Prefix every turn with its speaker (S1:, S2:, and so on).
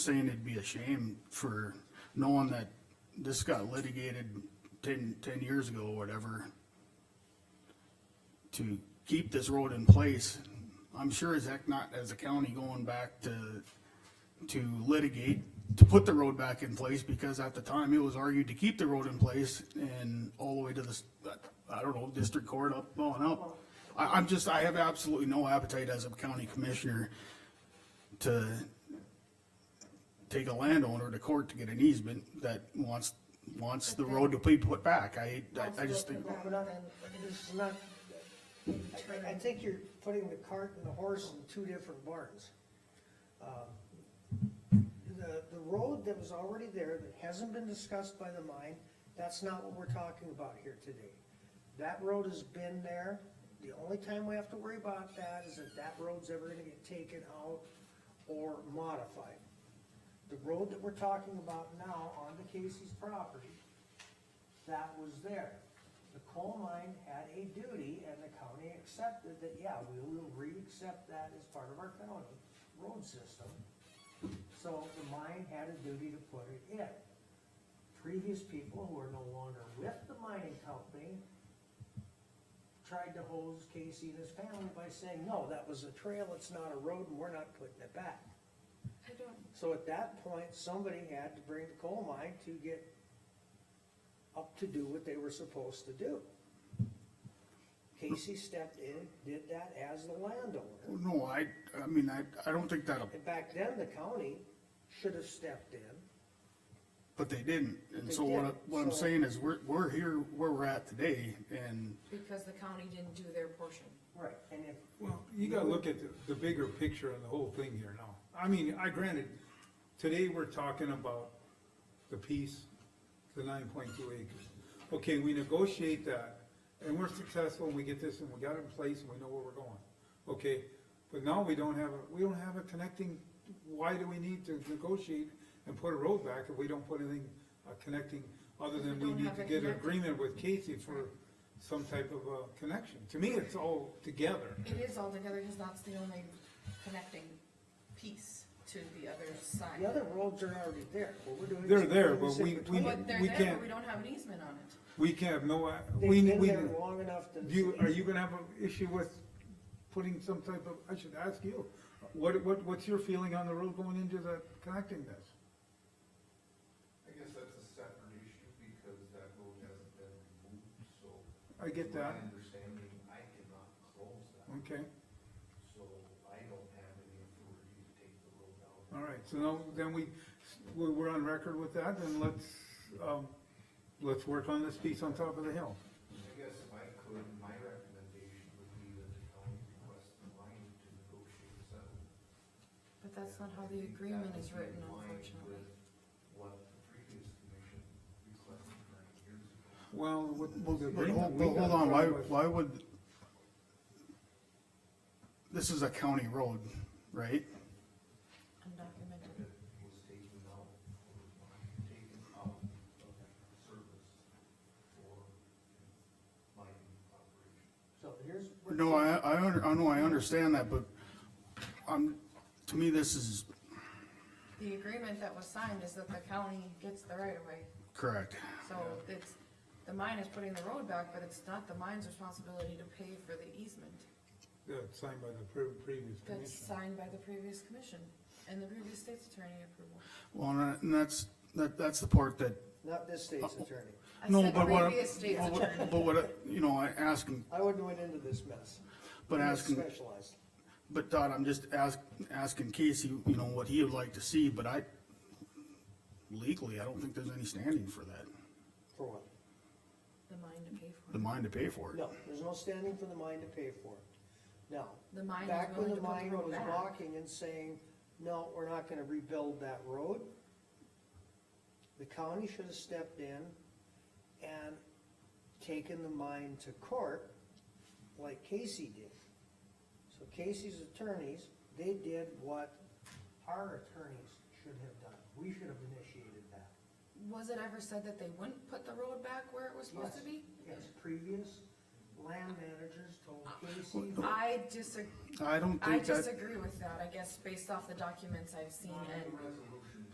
S1: saying it'd be a shame for knowing that this got litigated ten, ten years ago, or whatever. To keep this road in place, I'm sure as heck not as a county going back to, to litigate, to put the road back in place, because at the time it was argued to keep the road in place and all the way to the, s- I don't know, district court up, on up. I, I'm just, I have absolutely no appetite as a county commissioner to take a landowner to court to get an easement that wants, wants the road to be put back. I, I- I just think,
S2: We're not- this is not- I- I think you're putting the cart and the horse in two different barns. Um, The, the road that was already there, that hasn't been discussed by the mine, that's not what we're talking about here today. That road has been there, the only time we have to worry about that is if that road's ever gonna get taken out or modified. The road that we're talking about now on the Casey's property that was there. The coal mine had a duty and the county accepted that, yeah, we will re-accept that as part of our county road system. So the mine had a duty to put it in. Previous people who are no longer with the mining company tried to hose Casey and his family by saying, no, that was a trail, it's not a road, and we're not putting it back.
S3: I don't,
S2: So at that point, somebody had to bring the coal mine to get up to do what they were supposed to do. Casey stepped in, did that as the landowner.
S1: no, I, I mean, I, I don't think that'll,
S2: And back then, the county should have stepped in.
S1: but they didn't. And
S2: They
S1: so what, I-
S2: didn't,
S1: what I'm
S2: so-
S1: saying is, we're, we're here where we're at today, and
S3: because the county didn't do their portion.
S2: Right. And if,
S4: Well, you gotta look at the, the bigger picture and the whole thing here now. I mean, I granted, today we're talking about the piece, the nine point two acres. Okay, we negotiate that, and we're successful, and we get this, and we got it in place, and we know where we're going. Okay, but now we don't have, a we don't have a connecting, why do we need to negotiate and put a road back if we don't put anything, uh, connecting, other than we
S3: Don't
S4: need
S3: have
S4: to
S3: it
S4: get an
S3: connected.
S4: agreement with Casey for some type of a connection? To me, it's all together.
S3: It is altogether, because that's the only connecting piece to the other
S2: the
S3: side.
S2: other roads are already there, what we're doing. is-
S4: They're there, but we-
S2: They
S4: we-
S3: But they're
S4: we
S3: there,
S4: can't-
S3: but we don't have an easement on it.
S4: We can have no, uh, we,
S2: They've been
S4: we,
S2: there
S4: do
S2: long enough to.
S4: you, are you gonna have an issue with putting some type of, I should ask you, what, what, what's your feeling on the road going into the connecting this?
S5: I guess that's a separate issue because that road hasn't been removed, so.
S4: I get that, Mm.
S5: My understanding, I cannot close that,
S4: okay,
S5: so I don't have any authority to take the road out.
S4: all right, so now, then we, we- we're on record with that, then let's, um, let's work on this piece on top of the hill.
S5: I guess if I could, my recommendation would be that the county request the line to negotiate a settlement.
S3: But that's not how
S5: I
S3: the
S5: think
S3: agreement
S5: that
S3: is
S5: would be
S3: written,
S5: in line
S3: unfortunately.
S5: with What the previous commission requested nine years ago.
S4: Well, what, well, the
S1: But
S4: agreement
S1: hold,
S4: we
S1: but
S4: got
S1: hold on, why,
S4: from was-
S1: why would? This is a county road, right?
S3: Undocumented.
S5: that was taken out, or taken out of service for mining operation.
S2: So here's. where-
S1: No, I, I, under- I know, I understand that, but I'm, to me, this is
S3: The agreement that was signed is that the county gets the right of way,
S1: correct.
S3: so it's, the mine is putting the road back, but it's not the mine's responsibility to pay for the easement.
S4: Yeah, signed by the pre- previous
S3: That's
S4: commission.
S3: signed by the previous commission and the previous state's attorney approval.
S1: Well, and that- and that's, that, that's the part that,
S2: Not this state's attorney.
S3: I
S1: no,
S3: said
S1: but what, I'm-
S3: Previous state's
S1: but
S3: attorney.
S1: what- but what, I- you know, I ask him,
S2: I wouldn't went into this mess.
S1: But
S2: I'm not
S1: asking-
S2: Specialized.
S1: but Todd, I'm just ask, asking Casey, you know, what he would like to see, but I legally, I don't think there's any standing for that,
S2: For what?
S3: The mine to pay for
S1: the
S3: it.
S1: mine to pay for it.
S2: No, there's no standing for the mine to pay for it. Now,
S3: The mine is
S2: back
S3: willing
S2: when the
S3: to put the
S2: mine
S3: road
S2: was
S3: back.
S2: walking and saying, no, we're not gonna rebuild that road, the county should have stepped in and taken the mine to court like Casey did. So Casey's attorneys, they did what our attorneys should have done. We should have initiated that.
S3: Was it ever said that they wouldn't put the road back where it was supposed to be?
S2: Yes, previous land managers told Casey.
S3: I disagree,
S1: I don't
S3: I
S1: think that,
S3: disagree with that, I guess, based off the documents I've seen
S5: Not in
S3: and
S5: the resolution.